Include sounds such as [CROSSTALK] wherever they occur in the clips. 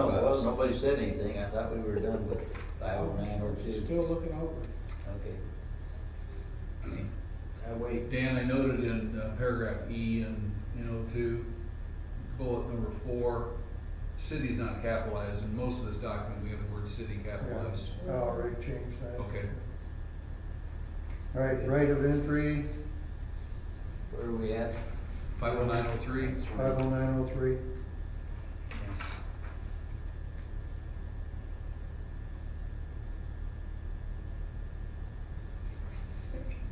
nobody said anything, I thought we were done with file nine or two. Still looking over. Okay. I wait. Dan, I noted in uh, paragraph E and, you know, two, bullet number four, city's not capitalized, in most of this document, we have the word city capitalized. Yeah, I'll already changed that. Okay, All right, right of entry, Where are we at? five oh nine oh three, five oh nine oh three.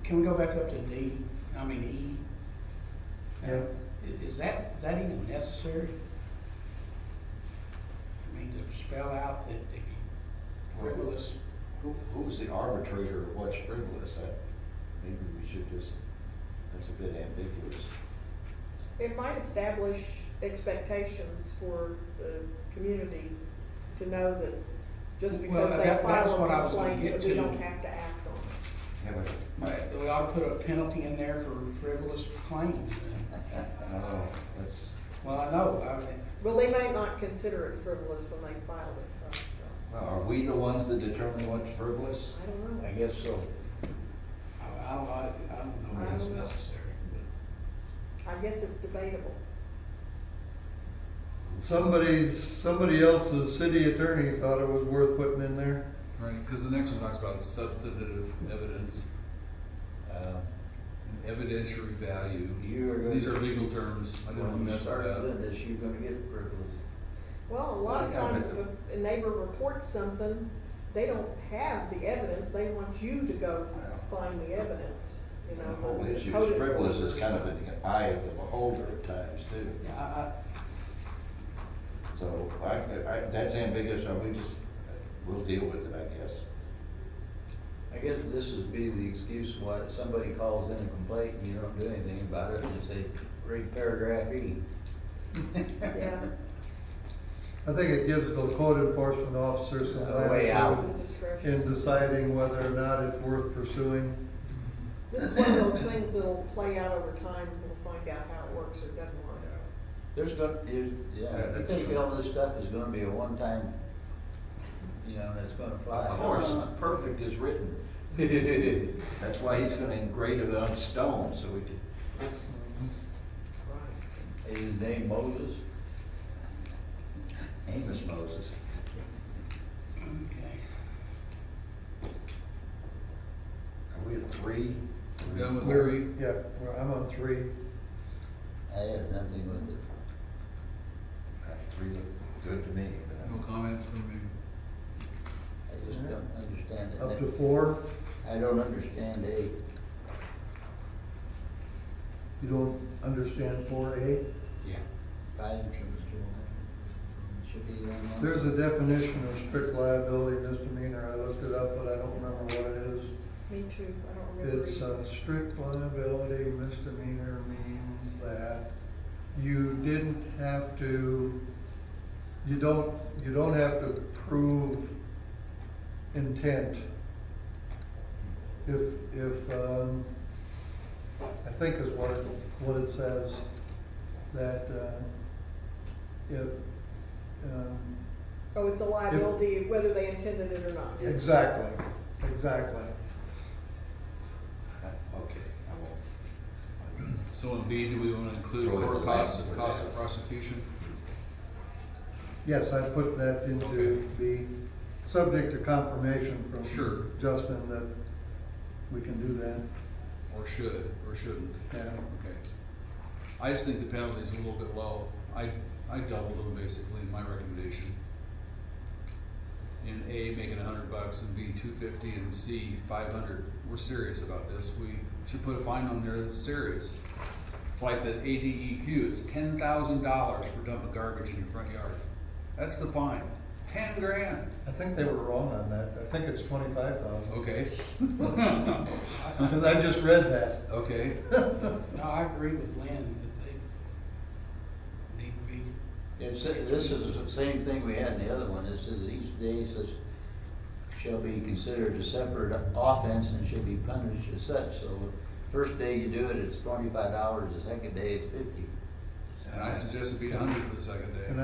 Can we go back up to D, I mean E? Yeah. I- Is that, is that even necessary? I mean, to spell out that if you frivolous, Who, who's the arbitrator of what's frivolous? That, maybe we should just, that's a bit ambiguous. It might establish expectations for the community to know that just Well, because that- they that was file what I a was gonna complaint, get that we to. don't have to act on it. Yeah, but, but we ought to put a penalty in there for frivolous claims. then. no, oh, that's, Well, I know, I, Well, they might not consider it frivolous when they file it, so, so, well, are we the ones that determine what's frivolous? I don't know. I guess so. I, I don't, know, I don't know if it's necessary, but I guess it's debatable. Somebody's, somebody else's city attorney thought it was worth putting in there. right, because the next one talks about substantive evidence, Uh, and evidentiary value. You are gonna- These are legal terms, I didn't want to When you mess with start that. doing this, you're gonna get frivolous. Well, a lot of Yeah, but- times if a- a neighbor reports something, they don't have the evidence, they want you to go find the evidence, you know. The whole the- the issue code is frivolous is enforcers. kind of in the eye of the beholder at times too. yeah, I, I, So I, I, that's ambiguous, so we just, we'll deal with it, I guess. I guess this would be the excuse why somebody calls in a complaint and you don't do anything about it, and you say, read paragraph E. Yeah, [LAUGHS] I think it gives the code enforcement officer some A way out. latitude some discretion. in deciding whether or not it's worth pursuing. This is one of those things that'll play out over time, and we'll find out how it works or doesn't work. There's gonna, is, yeah, I that's think true. all this stuff is gonna be a one-time, you know, that's gonna fly. Of course, [LAUGHS] perfect is written. That's why he's gonna engrave it on stone, so we can Right. Is his name Moses? Amos Moses. okay. Are we at three? We're Done with We're- three, Yeah, we're- I'm on three. I had nothing with it. Uh, Three look good to me, but no I'm- comments from me. I just don't understand it. Up to four, I don't understand A. you don't understand four A? Yeah. Guidance from Should be on that. There's a definition of strict liability misdemeanor, I looked it up, but I don't remember what it is. Me too, I don't remember. It's uh, either. a strict liability misdemeanor means that you didn't have to, you don't, you don't have to prove intent. If, if, um, I think is what it, what it says, that, uh, if, um, Oh, it's a liability, whether they intended it or not. exactly, exactly. uh, Okay, I won't. So in B, do we want to include Throw it court away. costs, and cost of prosecution? Yes, I put that Okay. into the, subject to confirmation from Sure. Justin that we can do that, Or should, or shouldn't? yeah. Okay. I just think the penalty's a little bit low. I, I doubled them basically in my recommendation. In A, make it a hundred bucks, and B, two fifty, and C, five hundred. We're serious about this. We should put a fine on there that's serious. It's like the ADEQ, it's ten thousand dollars for dumping garbage in your front yard. That's the fine. Ten grand, I think they were wrong on that, I think it's twenty-five [LAUGHS] thousand, okay? [LAUGHS] because I just read that. Okay, No, I agree with Lynn that they need to be, It's, this is the same thing we had in the other one, it says each day says shall be considered a separate offense and should be punished as such, so the first day you do it, it's twenty-five dollars, the second day it's fifty. and I suggested be a hundred for the second day. And I